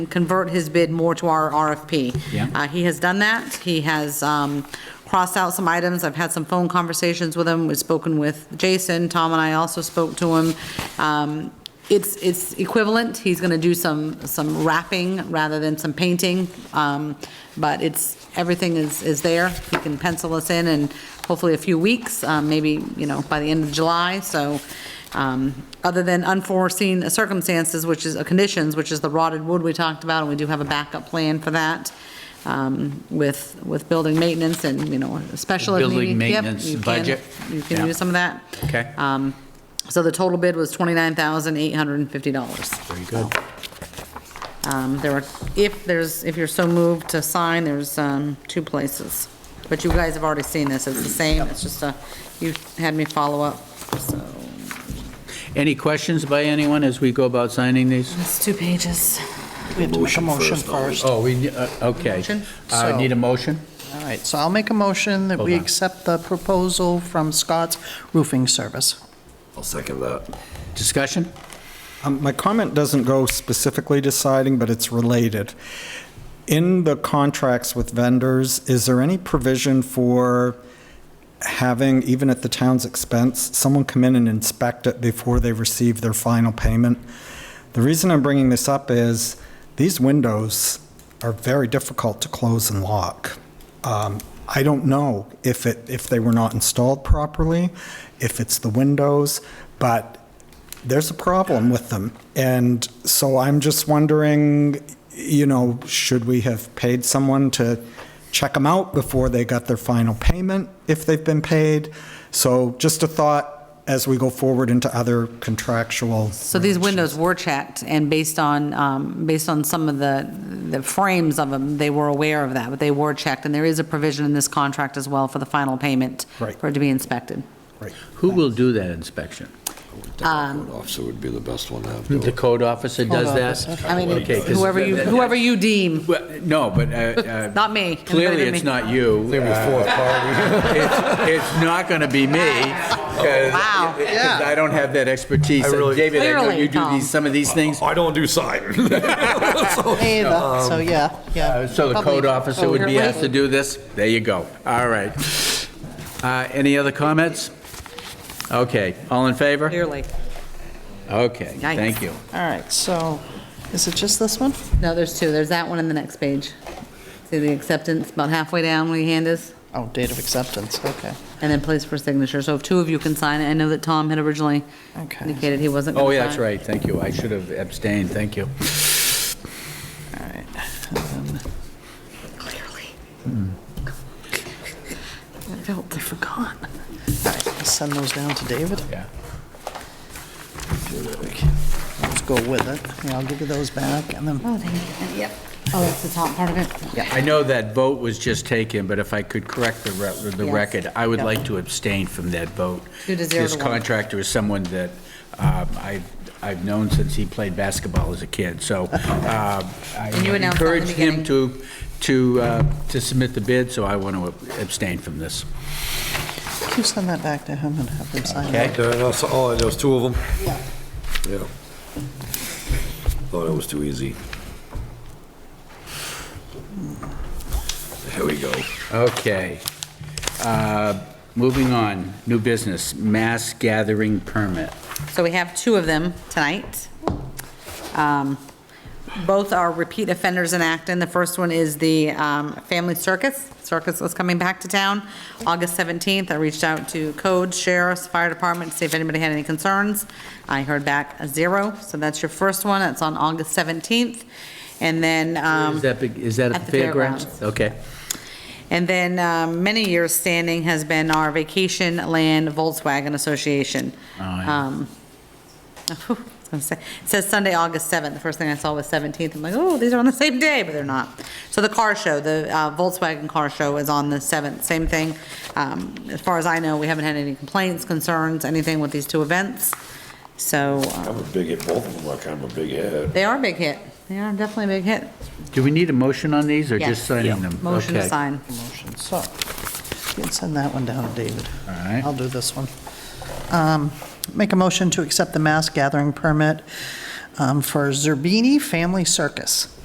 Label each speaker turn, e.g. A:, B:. A: convert his bid more to our RFP.
B: Yeah.
A: Uh, He has done that. He has um, crossed out some items. I've had some phone conversations with him. We've spoken with Jason. Tom and I also spoke to him. Um, It's, it's equivalent. He's going to do some, some wrapping rather than some painting. Um, But it's, everything is, is there. He can pencil us in in hopefully a few weeks, uh, maybe, you know, by the end of July. So um, other than unforeseen circumstances, which is, uh, conditions, which is the rotted wood we talked about, and we do have a backup plan for that um, with, with building maintenance and, you know, special. if
B: Building
A: needed. Yep,
B: maintenance
A: you can-
B: budget.
A: You can
B: Yeah.
A: do some of that.
B: Okay.
A: Um, So the total bid was $29,850.
B: Very good.
A: Um, There are, if there's, if you're so moved to sign, there's um, two places. But you guys have already seen this, it's the same, it's just a, you had me follow up, so.
B: Any questions by anyone as we go about signing these?
A: It's two pages.
C: We have to make a motion first.
B: Oh, we, uh, okay.
A: Motion?
B: Uh, Need a motion?
C: All right, so I'll make a motion that we
B: Hold on.
C: accept the proposal from Scott's Roofing Service.
D: I'll second that.
B: Discussion?
E: Um, My comment doesn't go specifically to siding, but it's related. In the contracts with vendors, is there any provision for having, even at the town's expense, someone come in and inspect it before they receive their final payment? The reason I'm bringing this up is these windows are very difficult to close and lock. Um, I don't know if it, if they were not installed properly, if it's the windows, but there's a problem with them. And so I'm just wondering, you know, should we have paid someone to check them out before they got their final payment, if they've been paid? So just a thought as we go forward into other contractual.
A: So these windows were checked, and based on, um, based on some of the, the frames of them, they were aware of that, but they were checked, and there is a provision in this contract as well for the final payment.
E: Right.
A: For it to be inspected.
E: Right.
B: Who will do that inspection?
D: Code officer would be the best one to have. do
B: The
D: it.
B: code officer does
C: Code
B: that?
A: I mean,
B: Okay, 'cause
A: whoever you,
B: that- that-
A: whoever you deem,
B: Well, No, but. uh, uh,
A: Not me.
B: Clearly,
A: Anybody but
B: it's
A: me.
B: not you. Uh, It's it's not going to be me.
A: Wow.
B: Wow. I don't have that expertise.
D: really-
B: David, I know
A: Clearly,
B: you do
A: Tom.
B: these, some of these things.
D: I don't do sign.
C: Hey, the- So, Oh, yeah, um, yeah.
B: Uh, So the code officer would be asked to do this? There you go. All right. Uh, Any other comments? Okay, all in favor?
A: clearly.
B: Okay,
A: Yikes.
B: thank you.
C: All right, so is it just this one?
A: No, there's two, there's that one and the next page. See the acceptance, about halfway down where your hand is,
C: Oh, date of acceptance, okay.
A: and then place for signature. So if two of you can sign it, I know that Tom had originally
C: Okay.
A: indicated he wasn't going
B: Oh,
A: to sign.
B: yeah, that's right, thank you. I should have abstained, thank you.
C: All right. Hmm. and then-
A: I felt I forgot.
C: all right, let's Send those down to David.
B: Yeah.
C: Let's go with it. Yeah, I'll give you those back and then,
A: Oh, thank you. Yep. Oh, that's the top part of it?
C: yeah.
B: I know that vote was just taken, but if I could correct the re- the
A: Yes.
B: record, I would
A: Yep.
B: like to abstain from that vote.
A: Two to zero
B: This
A: to one.
B: contractor is someone that um, I- I've known since he played basketball as a kid, so uh, I
A: And you announced that in the
B: encourage him
A: beginning.
B: to, to, uh, to submit the bid, so I want to abstain from this.
C: Can you send that back to him and have him sign
B: Okay.
C: it?
D: That's all, and there's two of them? Yeah. Yeah. Thought it was too easy. Here we go.
B: Okay. Uh, Moving on, new business, mass gathering permit.
A: So we have two of them tonight. Um, Both are repeat offenders in Acton. The first one is the um, Family Circus. Circus is coming back to town August 17th. I reached out to codes, sheriffs, fire department, to see if anybody had any concerns. I heard back a zero, so that's your first one. That's on August 17th. And then... um,
B: Is that, big- is that at the fairgrounds? Okay.
A: and then um, many years standing has been our Vacation Land Volkswagen Association.
B: Oh, yeah.
A: Um, I was gonna say- It says Sunday, August 7th. The first thing I saw was 17th. I'm like, oh, these are on the same day, but they're not. So the car show, the uh, Volkswagen car show is on the 7th, same thing. Um, As far as I know, we haven't had any complaints, concerns, anything with these two events. So uh,
D: I'm a big hit, both of them like I'm a big head.
A: they are a big hit. They are definitely a big hit.
B: Do we need a motion on these, or
A: Yes.
B: just signing them?
A: Motion to
B: Okay.
A: sign.
C: Motion, so, you can send that one down to David.
B: All right.
C: I'll do this one. Um, Make a motion to accept the mass gathering permit um, for Zerbini Family Circus.